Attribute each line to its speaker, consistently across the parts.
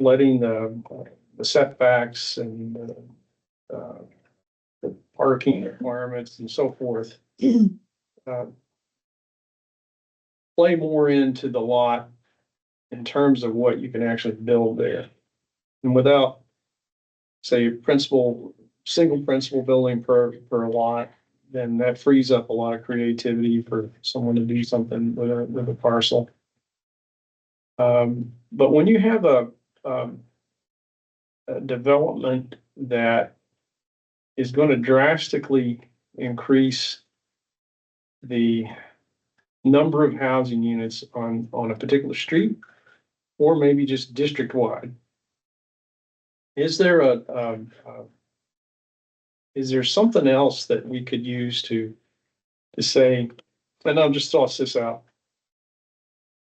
Speaker 1: letting the the setbacks and uh, uh, the parking requirements and so forth. uh, Play more into the lot in terms of what you can actually build there. And without, say, principal, single principal building per, per lot, then that frees up a lot of creativity for someone to do something with a, with a parcel. Um, but when you have a, um, a development that is going to drastically increase the number of housing units on, on a particular street, or maybe just district-wide. Is there a, um, uh, is there something else that we could use to, to say, and I'll just toss this out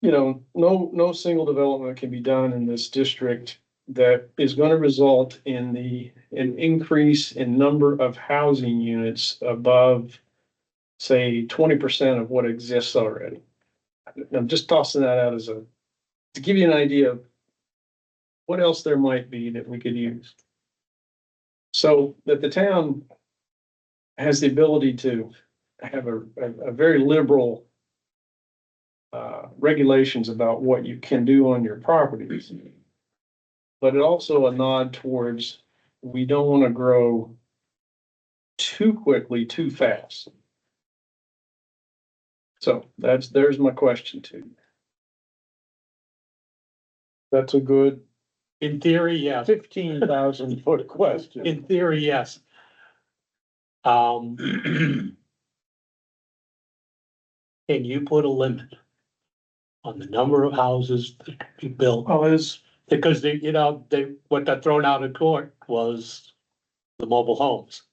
Speaker 1: you know, no, no single development can be done in this district that is gonna result in the, an increase in number of housing units above, say, twenty percent of what exists already. I'm just tossing that out as a, to give you an idea of what else there might be that we could use. So that the town has the ability to have a, a, a very liberal uh, regulations about what you can do on your properties. But it also a nod towards, we don't want to grow too quickly, too fast. So that's, there's my question to you.
Speaker 2: That's a good
Speaker 3: In theory, yes.
Speaker 2: fifteen thousand foot question.
Speaker 3: In theory, yes. Um. Can you put a limit on the number of houses that can be built?
Speaker 2: Well, is,
Speaker 3: Because they, you know, they, what got thrown out of court was the mobile homes.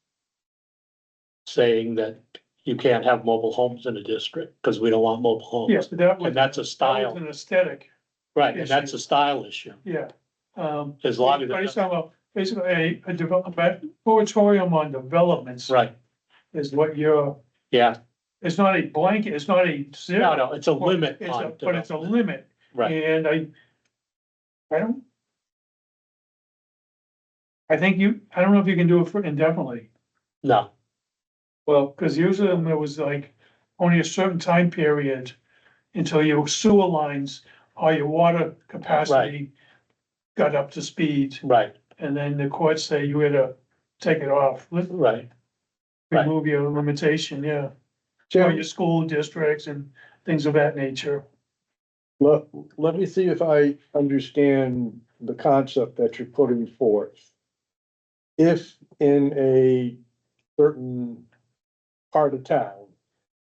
Speaker 3: Saying that you can't have mobile homes in a district because we don't want mobile homes.
Speaker 4: Yes, that was,
Speaker 3: And
Speaker 4: that
Speaker 3: that's a
Speaker 4: was
Speaker 3: style,
Speaker 4: an aesthetic,
Speaker 3: right, and that's a style issue.
Speaker 4: yeah. Um,
Speaker 3: There's a lot of,
Speaker 4: based on, a- basically, a, a development, moratorium on developments
Speaker 3: right,
Speaker 4: is what you're,
Speaker 3: yeah,
Speaker 4: it's not a blanket, it's not a
Speaker 3: no,
Speaker 4: zero.
Speaker 3: no, it's a limit
Speaker 4: It's
Speaker 3: on.
Speaker 4: a- But it's a
Speaker 3: development.
Speaker 4: limit,
Speaker 3: Right,
Speaker 4: and I, I don't. I think you, I don't know if you can do it for indefinitely,
Speaker 3: no,
Speaker 1: Well,
Speaker 4: because usually there was like only a certain time period until your sewer lines or your water capacity got up to speed.
Speaker 3: right.
Speaker 4: And then the courts say you had to take it off, let-
Speaker 3: Right, Right.
Speaker 4: remove your limitation, yeah. Or
Speaker 2: Jim,
Speaker 4: your school districts and things of that nature.
Speaker 2: let, let me see if I understand the concept that you're putting forth. If in a certain part of town,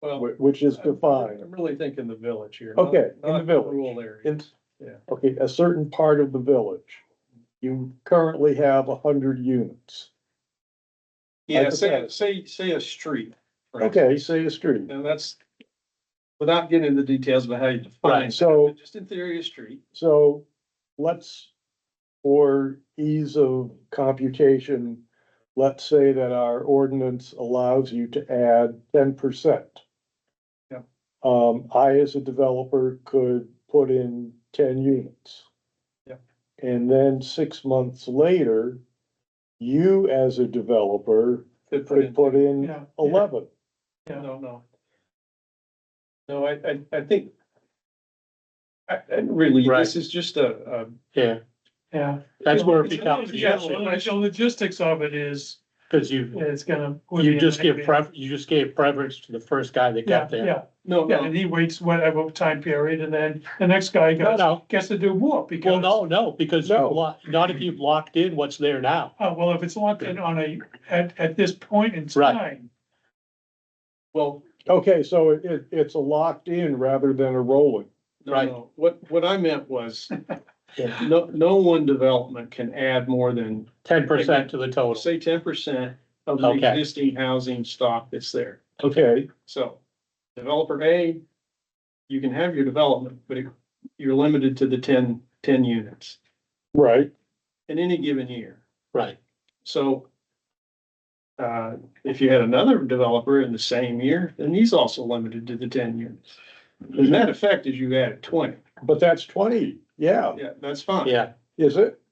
Speaker 2: whi-
Speaker 1: well,
Speaker 2: which is
Speaker 1: I'm
Speaker 2: defined,
Speaker 1: really thinking the village here. not-
Speaker 2: Okay, in the
Speaker 1: not
Speaker 2: village.
Speaker 1: Rural area.
Speaker 2: in,
Speaker 1: Yeah.
Speaker 2: okay, a certain part of the village, you currently have a hundred units.
Speaker 1: Yeah, say, say, say a street. for instance.
Speaker 2: Okay, say a street.
Speaker 1: Now that's, without getting into the details about how you define.
Speaker 3: Right,
Speaker 1: it,
Speaker 2: so-
Speaker 1: but Just in theory, a street.
Speaker 2: So let's, for ease of computation, let's say that our ordinance allows you to add ten percent.
Speaker 1: Yep.
Speaker 2: Um, I as a developer could put in ten units.
Speaker 1: Yep.
Speaker 2: And then six months later, you as a developer
Speaker 1: could put
Speaker 2: could
Speaker 1: in-
Speaker 2: put in
Speaker 4: Yeah.
Speaker 2: eleven.
Speaker 1: No, no. No, I, I, I think. I, I really,
Speaker 3: Right.
Speaker 1: this is just a,
Speaker 3: yeah,
Speaker 4: Yeah.
Speaker 3: that's where it
Speaker 4: It's-
Speaker 3: becomes an
Speaker 4: Yeah, the
Speaker 3: issue,
Speaker 4: log- the logistics of it is,
Speaker 3: cause you,
Speaker 4: it's gonna.
Speaker 3: you just give pref, you just gave preference to the first guy that
Speaker 4: Yeah,
Speaker 3: got there.
Speaker 4: yeah,
Speaker 1: no,
Speaker 4: yeah,
Speaker 1: no,
Speaker 4: and he waits whatever time period, and then the next guy
Speaker 3: No,
Speaker 4: gets,
Speaker 3: no,
Speaker 4: gets to do more, because.
Speaker 3: well, no, no, because you
Speaker 2: No.
Speaker 3: lo- not if you've locked in what's there now,
Speaker 4: Oh, well, if it's locked in on a, at, at this point in
Speaker 3: Right.
Speaker 4: time,
Speaker 1: well,
Speaker 2: Okay, so it- it, it's a locked in rather than a rolling.
Speaker 1: no,
Speaker 3: Right.
Speaker 1: no, what, what I meant was,
Speaker 3: Yeah.
Speaker 1: no, no one development can add more than,
Speaker 3: ten percent to the total,
Speaker 1: say, ten percent of the
Speaker 3: Okay.
Speaker 1: existing housing stock that's there.
Speaker 2: Okay,
Speaker 1: So, developer A, you can have your development, but it- you're limited to the 10 10 units
Speaker 2: right.
Speaker 1: in any given year.
Speaker 3: right,
Speaker 1: So uh, if you had another developer in the same year, then he's also limited to the ten units. The net effect is you added twenty.
Speaker 2: But that's twenty, yeah,
Speaker 1: Yeah, that's fine.
Speaker 3: yeah,
Speaker 2: Is it?